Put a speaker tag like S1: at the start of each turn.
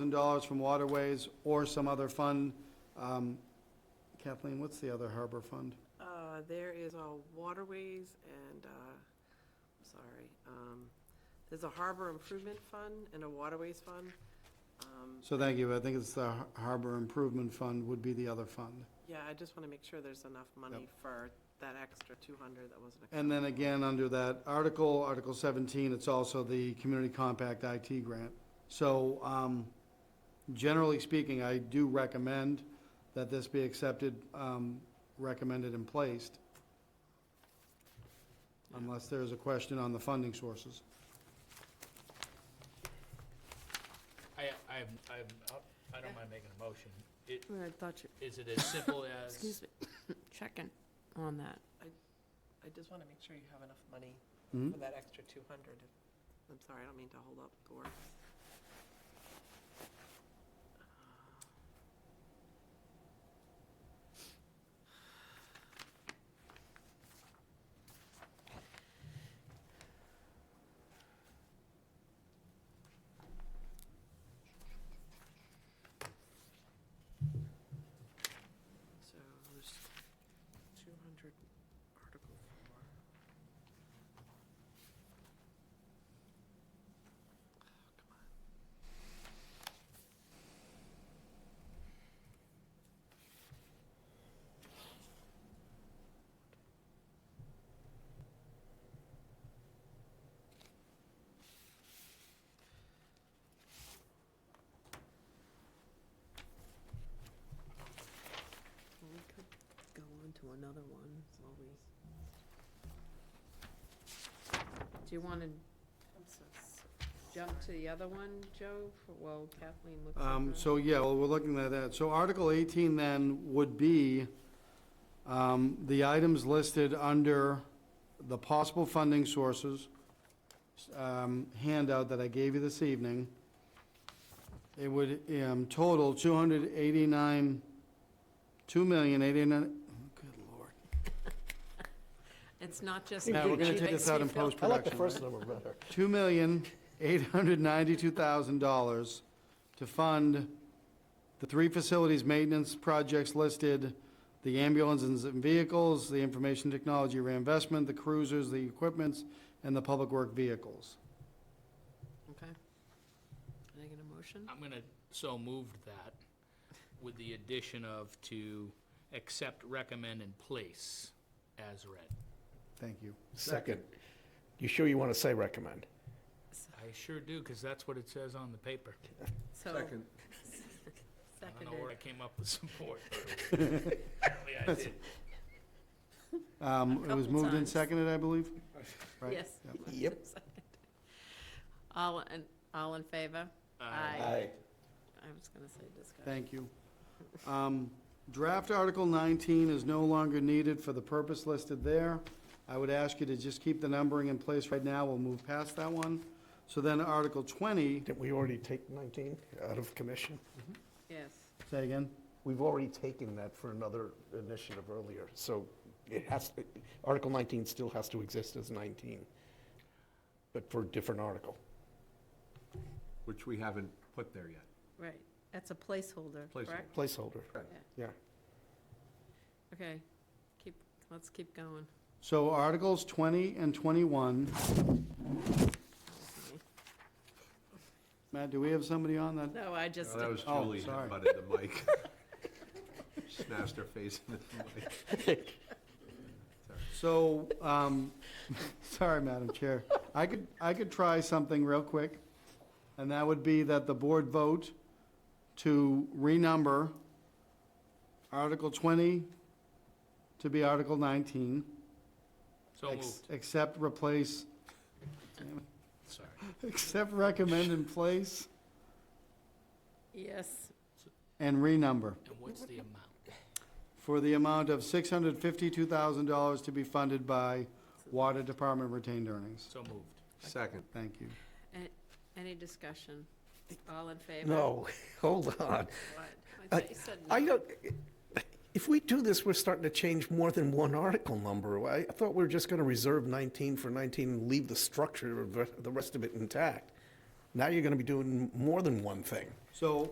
S1: million dollars from waterways or some other fund. Um, Kathleen, what's the other harbor fund?
S2: Uh, there is a waterways and, uh, I'm sorry, um, there's a harbor improvement fund and a waterways fund. Um,
S1: So thank you, I think it's the Har- Harbor Improvement Fund would be the other fund.
S2: yeah, I just wanna make sure there's enough money for that extra two hundred that wasn't.
S1: And then again, under that article, Article 17, it's also the Community Compact IT grant. So um, generally speaking, I do recommend that this be accepted, um, recommended and placed, unless there is a question on the funding sources.
S3: I, I'm, I'm, I don't mind making a motion. It,
S4: I thought you,
S3: is it as simple as?
S4: excuse me, checking on that.
S2: I just wanna make sure you have enough money
S1: Mhm.
S2: for that extra two hundred. I'm sorry, I don't mean to hold up the works. So there's two hundred Article four.
S4: We could go on to another one while we. Do you want to
S2: I'm so sorry.
S4: jump to the other one, Joe, for- while Kathleen looks at
S1: Um,
S4: that?
S1: So, yeah, well, we're looking at that. So Article 18 then would be um, the items listed under the possible funding sources um, handout that I gave you this evening. It would um, total 289, 2,089, good lord.
S4: It's not just me.
S1: Yeah, we're going
S4: she
S1: to take
S4: makes
S1: this out
S4: me
S1: in
S4: feel-
S1: post-production.
S5: I like the first number better.
S1: two million, eight hundred ninety-two thousand dollars to fund the three facilities maintenance projects listed, the ambulances and vehicles, the information technology reinvestment, the cruisers, the equipments, and the public work vehicles.
S4: Okay. Can I get a motion?
S3: I'm gonna, so moved that with the addition of to accept, recommend, and place as read.
S1: Thank you.
S5: Second. You sure you want to say recommend?
S3: I sure do, because that's what it says on the paper.
S4: So-
S3: I don't know where I
S4: Seconded.
S3: came up with support. but Apparently I did.
S1: Um, it was
S4: couple
S1: moved and
S4: times.
S1: seconded, I believe? Right?
S4: Yes.
S1: Yep.
S5: Yep.
S4: Second. All, in all in favor?
S3: Uh,
S4: I was going to say discussion.
S1: Thank you. Um, Draft Article 19 is no longer needed for the purpose listed there. I would ask you to just keep the numbering in place right now. We'll move past that one. So then Article 20,
S5: Didn't we already take 19 out of commission?
S4: Yes.
S1: say again?
S5: We've already taken that for another initiative earlier, so it has, Article 19 still has to exist as 19, but for a different article.
S6: which we haven't put there yet.
S4: Right. That's a placeholder,
S6: Placeholder.
S4: correct?
S5: Placeholder.
S6: Right.
S5: Yeah.
S4: Okay. Keep, let's keep going.
S1: So Articles 20 and 21. Matt, do we have somebody on that?
S4: No, I just,
S6: That was
S1: Oh,
S6: Julie
S1: sorry.
S6: that butted the mic. Smashed her face into the mic.
S1: So, um, sorry, Madam Chair. I could, I could try something real quick, and that would be that the board vote to renumber Article 20 to be Article 19.
S3: So
S1: ex-
S3: moved,
S1: Except replace,
S3: sorry.
S1: except recommend in place
S4: yes,
S1: and renumber
S3: And what's the amount?
S1: for the amount of $652,000 to be funded by Water Department retained earnings.
S3: So moved.
S6: Second.
S1: Thank you.
S4: any discussion? All in favor?
S5: No, hold on.
S4: What?
S5: I-
S4: thought you said
S5: I
S4: no.
S5: don't, if we do this, we're starting to change more than one article number. I I thought we were just going to reserve 19 for 19 and leave the structure of the- the rest of it intact. Now you're going to be doing more than one thing.
S1: So